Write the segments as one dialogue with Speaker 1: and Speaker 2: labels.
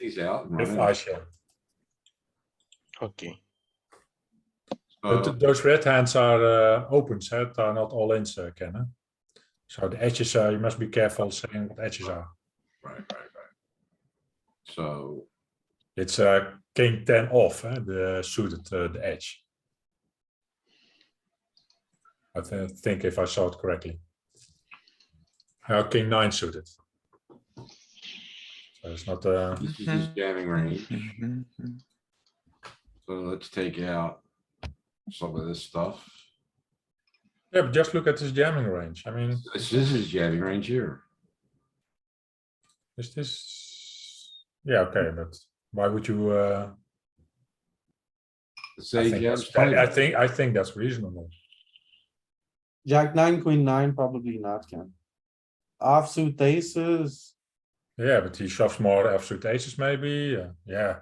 Speaker 1: He's out. and
Speaker 2: with
Speaker 1: running.
Speaker 2: ISO.
Speaker 3: Okay.
Speaker 2: But
Speaker 1: So,
Speaker 2: th- those red hands are uh, opens, huh? they are not all ins, uh, Ken. huh? So the edges, uh, you must be careful saying what edges are.
Speaker 1: Oh, Right, right, right. So,
Speaker 2: It's uh, king 10 off, huh? the suited, uh, the edge. I th- think if I saw it correctly. Uh, king 9 suited. So it's not, uh,
Speaker 1: this is his jamming range,
Speaker 3: Mhm.
Speaker 1: so let's take out some of this stuff.
Speaker 2: yeah, but just look at his jamming range. I mean,
Speaker 1: This this is jamming range here.
Speaker 2: is this, yeah, okay, but why would you, uh, I
Speaker 1: Say
Speaker 2: think
Speaker 1: jams.
Speaker 2: that's- I I
Speaker 1: table.
Speaker 2: think, I think that's reasonable.
Speaker 4: Jack nine, queen nine, probably not, Ken. Offsuit aces,
Speaker 2: Yeah, but he shoves more absolute aces maybe. uh, yeah.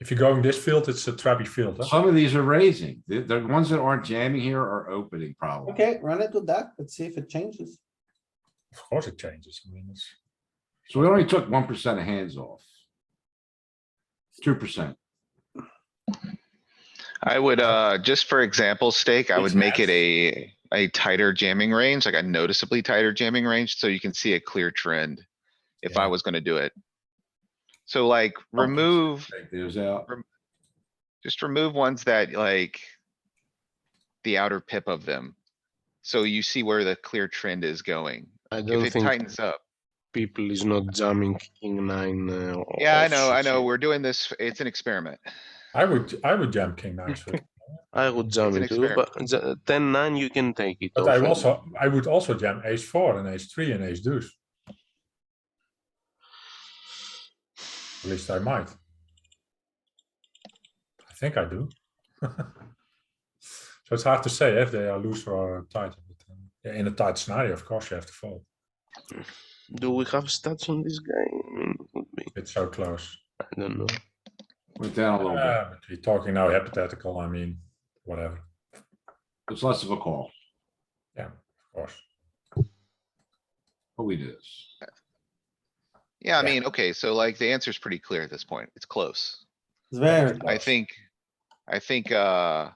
Speaker 2: If you're going this field, it's a trappy field. huh?
Speaker 1: Some of these are raising. The, the ones that aren't jamming here are opening probably.
Speaker 4: okay, run it with that, let's see if it changes.
Speaker 2: Of course it changes. I mean, it's,
Speaker 1: So we only took one percent of hands off. Two percent.
Speaker 3: I would, uh, just for example's sake, I
Speaker 2: Makes
Speaker 3: would make it
Speaker 2: sense.
Speaker 3: a, a tighter jamming range, like a noticeably tighter jamming range, so you can see a clear trend. If I
Speaker 2: Yeah.
Speaker 3: was gonna do it. So like remove,
Speaker 1: Take those out.
Speaker 3: just remove ones that like. The outer pip of them. So you see where the clear trend is going.
Speaker 5: I
Speaker 3: If
Speaker 5: don't
Speaker 3: it
Speaker 5: think
Speaker 3: tightens up.
Speaker 5: people is not jamming king nine. Uh, or-
Speaker 3: Yeah, I
Speaker 5: or
Speaker 3: know, I
Speaker 5: suited.
Speaker 3: know. We're doing this, it's an experiment.
Speaker 2: I would, I would jam king nine suited,
Speaker 5: I would jam
Speaker 3: an
Speaker 5: it too, but j- ten nine you can take it.
Speaker 2: but I
Speaker 5: off, and-
Speaker 2: also, I would also jam ace four and ace three and ace deuce. At least I might. I think I do. So it's hard to say if they are loose or tight. but, um, yeah, In a tight scenario, of course, you have to fold.
Speaker 5: Do we have stats on this guy? I mean, it would be.
Speaker 2: It's so close.
Speaker 5: I don't know.
Speaker 1: Went down a little bit.
Speaker 2: Yeah, but we're talking now hypothetical, I mean, whatever, of
Speaker 1: It's less of a call,
Speaker 2: course.
Speaker 1: but we do this.
Speaker 3: Yeah,
Speaker 2: Yeah.
Speaker 3: I mean, okay, so like the answer's pretty clear at this point. It's close.
Speaker 4: It's very,
Speaker 3: I think, I think, uh.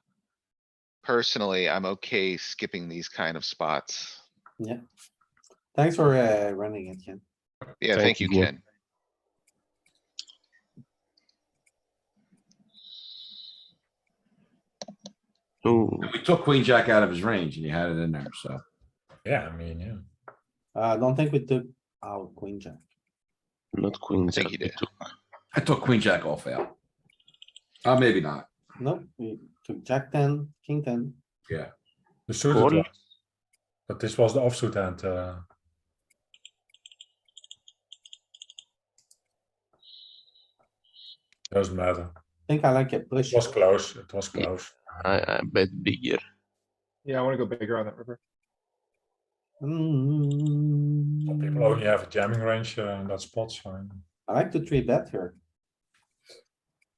Speaker 3: Personally, I'm okay skipping these kind of spots.
Speaker 4: thanks for uh running it, Ken.
Speaker 3: Yeah,
Speaker 5: Thank
Speaker 3: thank you,
Speaker 5: you, Glenn.
Speaker 3: Ken.
Speaker 5: Ooh,
Speaker 1: And we took queen jack out of his range and he had it in there, so.
Speaker 2: Yeah, I mean, yeah.
Speaker 4: Uh, I don't think we took out queen jack.
Speaker 5: not queen.
Speaker 3: think
Speaker 5: jack,
Speaker 3: you
Speaker 5: we
Speaker 3: did.
Speaker 5: took-
Speaker 1: I took queen jack off out. Uh, maybe not.
Speaker 4: Nope, we took jack ten, king ten.
Speaker 2: The suited
Speaker 5: Call.
Speaker 2: one. But this was the offsuit hand, uh, Doesn't matter,
Speaker 4: Think I like it, push.
Speaker 2: it was close, it was
Speaker 5: Yeah.
Speaker 2: close.
Speaker 5: I, I bet bigger.
Speaker 6: Yeah, I wanna go bigger on that river.
Speaker 2: Some
Speaker 4: Mm,
Speaker 2: People only have a jamming range uh, in that spot, so.
Speaker 4: I like the three bet here.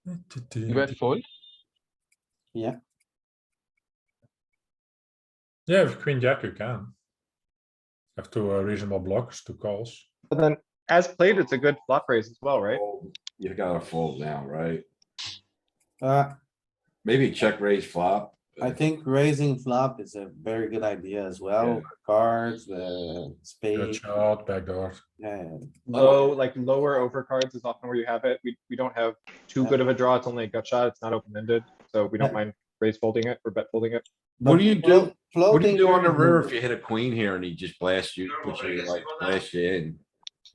Speaker 6: You bet fold?
Speaker 2: Yeah, with queen jack you can. Have two uh, reasonable blocks, two calls.
Speaker 6: But then, as played, it's a good flop raise as well, right?
Speaker 1: You gotta fold now, right?
Speaker 4: Uh,
Speaker 1: Maybe check raise flop.
Speaker 4: I think raising flop is a very good idea as well,
Speaker 1: Yeah.
Speaker 4: cards, uh, the
Speaker 2: Good
Speaker 4: spade,
Speaker 2: shot, backdoor.
Speaker 4: yeah.
Speaker 6: Low, like lower overcards is often where you have it. We, we don't have too good of a draw. It's only a gut shot. It's not open-ended, so we
Speaker 4: Yeah.
Speaker 6: don't mind raise folding it or bet folding it.
Speaker 1: What do you do? What do
Speaker 4: Floating
Speaker 1: you do on the
Speaker 4: is-
Speaker 1: river if you hit a queen here and he just blasts you, puts you like, blasts you in?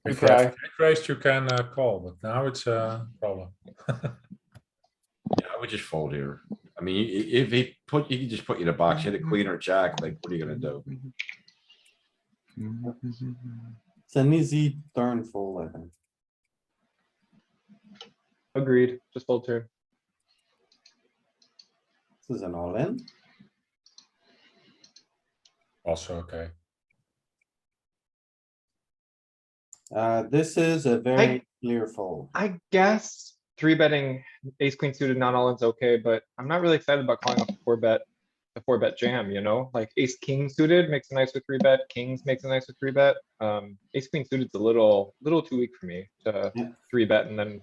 Speaker 6: We
Speaker 2: If you have
Speaker 6: try.
Speaker 2: jack raised, you can uh, call, but now it's a problem.
Speaker 1: Yeah, I would just fold here. I mean, i- i- if he put, he could just put you in a box, hit a queen or jack, like, what are you gonna do?
Speaker 4: It's an easy turn full, I think.
Speaker 6: Agreed, just fold turn.
Speaker 4: This is an all in.
Speaker 2: Also, okay.
Speaker 4: Uh, this is a very clear fold.
Speaker 6: I guess three betting ace queen suited not all in's okay, but I'm not really excited about calling off the four bet. The four bet jam, you know, like ace king suited makes a nicer three bet, kings makes a nicer three bet. Um, ace queen suited's a little, little too weak for me to
Speaker 4: Yeah.
Speaker 6: three bet and then